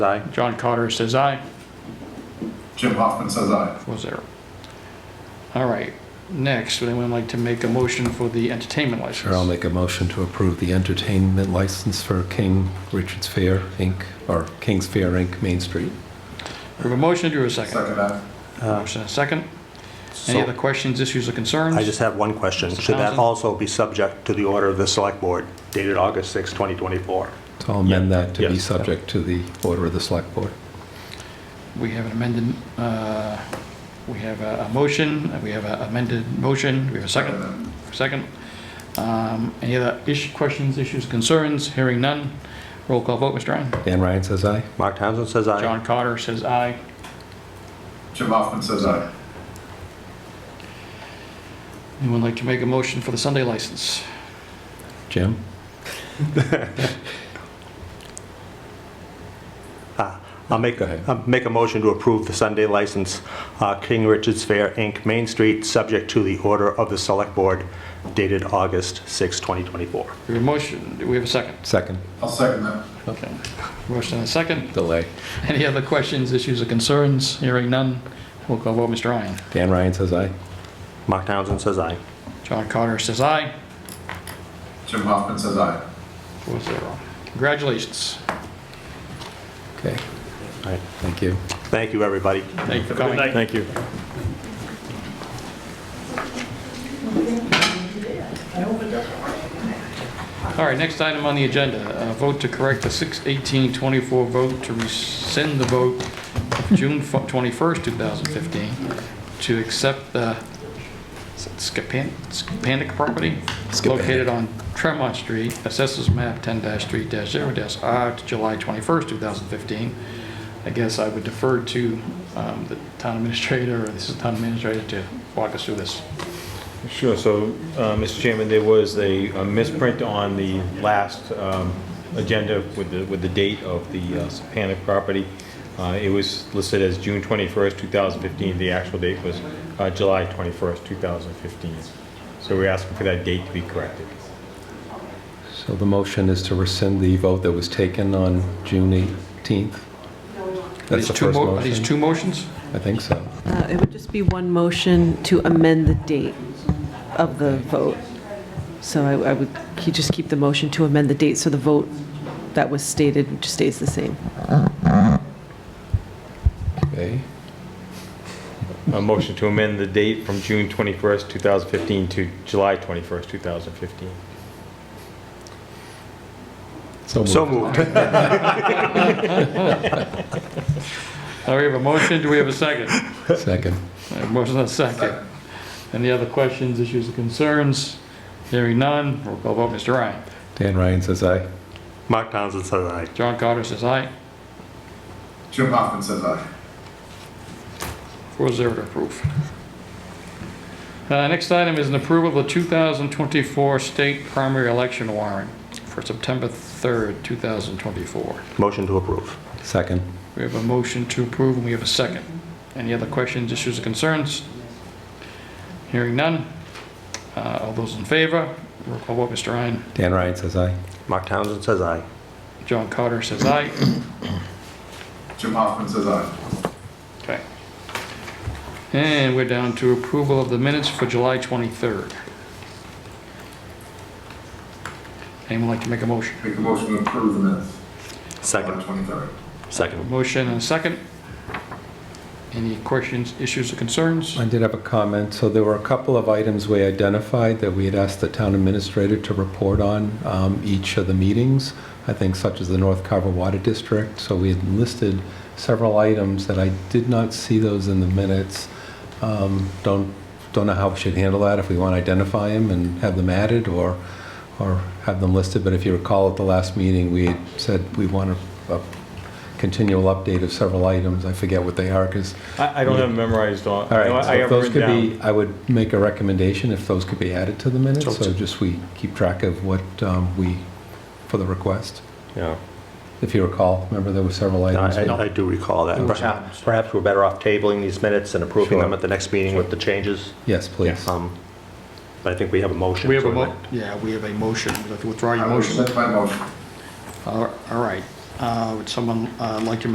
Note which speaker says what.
Speaker 1: Aye.
Speaker 2: John Cotter says aye.
Speaker 3: Jim Hoffman says aye.
Speaker 2: Four zero. All right, next, would anyone like to make a motion for the entertainment license?
Speaker 4: Sure, I'll make a motion to approve the entertainment license for King Richard's Fair, Inc., or King's Fair, Inc., Main Street.
Speaker 2: We have a motion, do we have a second?
Speaker 3: Second that.
Speaker 2: Motion and a second.
Speaker 1: Uh, So,
Speaker 2: Any other questions, issues, or concerns?
Speaker 1: I just have one question.
Speaker 2: Mr.
Speaker 1: Should that
Speaker 2: Townsend?
Speaker 1: also be subject to the order of the Select Board dated August 6, 2024?
Speaker 4: So I'll amend that to be
Speaker 1: Yes.
Speaker 4: subject to the order of the select board.
Speaker 2: We have an amended, uh, we have a a motion, we have an amended motion, we have a second,
Speaker 3: Second
Speaker 2: second. Um, Any other issue, questions, issues, concerns? Hearing none. Roll call vote, Mr. Ryan.
Speaker 4: Dan Ryan says aye.
Speaker 1: Mark Townsend says aye.
Speaker 2: John Cotter says aye.
Speaker 3: that. Jim Hoffman says aye.
Speaker 2: Anyone like to make a motion for the Sunday license?
Speaker 4: Jim?
Speaker 1: I'll make,
Speaker 4: Go ahead.
Speaker 1: I'll make a motion to approve the Sunday license, uh, King Richard's Fair, Inc., Main Street, subject to the order of the Select Board dated August 6, 2024.
Speaker 2: We have a motion, do we have a second?
Speaker 4: Second.
Speaker 3: I'll second that.
Speaker 2: Okay. Motion and a second.
Speaker 4: Delay.
Speaker 2: Any other questions, issues, or concerns? Hearing none. Roll call vote, Mr. Ryan.
Speaker 4: Dan Ryan says aye.
Speaker 1: Mark Townsend says aye.
Speaker 2: John Cotter says aye.
Speaker 3: Jim Hoffman says aye.
Speaker 2: Four zero. Congratulations.
Speaker 4: Okay,
Speaker 1: All right.
Speaker 4: thank you.
Speaker 1: Thank you, everybody.
Speaker 2: Thank you for coming.
Speaker 1: Thank you.
Speaker 2: All right, next item on the agenda, uh, vote to correct the 6/18/24 vote to rescind the vote of June fu- 21st, 2015, to accept the Scapan- Scapanic property located on Tremont Street, Assessors Map 10-3-0-R, to July 21st, 2015. I guess I would defer to um, the town administrator, or this is town administrator, to walk us through this.
Speaker 5: Sure, so, uh, Mr. Chairman, there was a a misprint on the last um, agenda with the, with the date of the uh, Sapanic property. Uh, It was listed as June 21st, 2015, the actual date was uh, July 21st, 2015. So we're asking for that date to be corrected.
Speaker 4: So the motion is to rescind the vote that was taken on June 18th? That's the
Speaker 2: These two
Speaker 4: first
Speaker 2: mo- Are these
Speaker 4: motion?
Speaker 2: two motions?
Speaker 4: I think so.
Speaker 6: Uh, It would just be one motion to amend the date of the vote. So I I would, you just keep the motion to amend the date, so the vote that was stated just stays the same.
Speaker 4: Okay,
Speaker 5: A motion to amend the date from June 21st, 2015 to July 21st, 2015.
Speaker 4: so
Speaker 1: So
Speaker 4: moved.
Speaker 1: moved.
Speaker 2: All right, we have a motion, do we have a second?
Speaker 4: Second.
Speaker 2: Uh, Motion and a second. Any other questions, issues, or concerns? Hearing none, roll call vote, Mr. Ryan.
Speaker 4: Dan Ryan says aye.
Speaker 1: Mark Townsend says aye.
Speaker 2: John Carter says aye,
Speaker 3: Jim Hoffman says aye.
Speaker 2: four zero to approve. Uh, Next item is an approval of the 2024 state primary election warrant for September 3rd, 2024.
Speaker 1: Motion to approve.
Speaker 4: Second.
Speaker 2: We have a motion to approve, and we have a second. Any other questions, issues, or concerns? Hearing none. Uh, All those in favor, roll call vote, Mr. Ryan.
Speaker 4: Dan Ryan says aye.
Speaker 1: Mark Townsend says aye.
Speaker 2: John Carter says aye.
Speaker 3: Jim Hoffman says aye.
Speaker 2: Okay. And we're down to approval of the minutes for July 23rd. Anyone like to make a motion?
Speaker 3: Make a motion to approve the minutes.
Speaker 1: Second.
Speaker 3: July 23rd.
Speaker 1: Second.
Speaker 2: Motion and a second. Any questions, issues, or concerns?
Speaker 4: I did have a comment. So there were a couple of items we identified that we had asked the town administrator to report on um, each of the meetings, I think such as the North Carver Water District. So we had listed several items that I did not see those in the minutes. Um, Don't, don't know how we should handle that, if we want to identify them and have them added or, or have them listed. But if you recall at the last meeting, we had said we want a a continual update of several items. I forget what they are because
Speaker 5: I I don't have it memorized on.
Speaker 4: all
Speaker 5: no, I
Speaker 4: right, so
Speaker 5: have it
Speaker 4: if those
Speaker 5: written
Speaker 4: could
Speaker 5: down.
Speaker 4: be, I would make a recommendation if those could be added to the minutes,
Speaker 1: So-
Speaker 4: so just we keep track of what um, we, for the request.
Speaker 1: Yeah.
Speaker 4: If you recall, remember there were several items.
Speaker 1: I- I I do recall that. Perhaps perhaps we're better off tabling these minutes and approving them
Speaker 4: Sure.
Speaker 1: at the next meeting with the changes.
Speaker 4: Yes, please.
Speaker 1: Um, But I think we have a motion.
Speaker 2: We have a
Speaker 1: to
Speaker 2: mo,
Speaker 1: amend.
Speaker 2: yeah, we have a motion. We'd like to Withdraw your
Speaker 3: I will
Speaker 2: motion.
Speaker 3: rescind my motion.
Speaker 2: All all right. Uh, Would someone uh, like to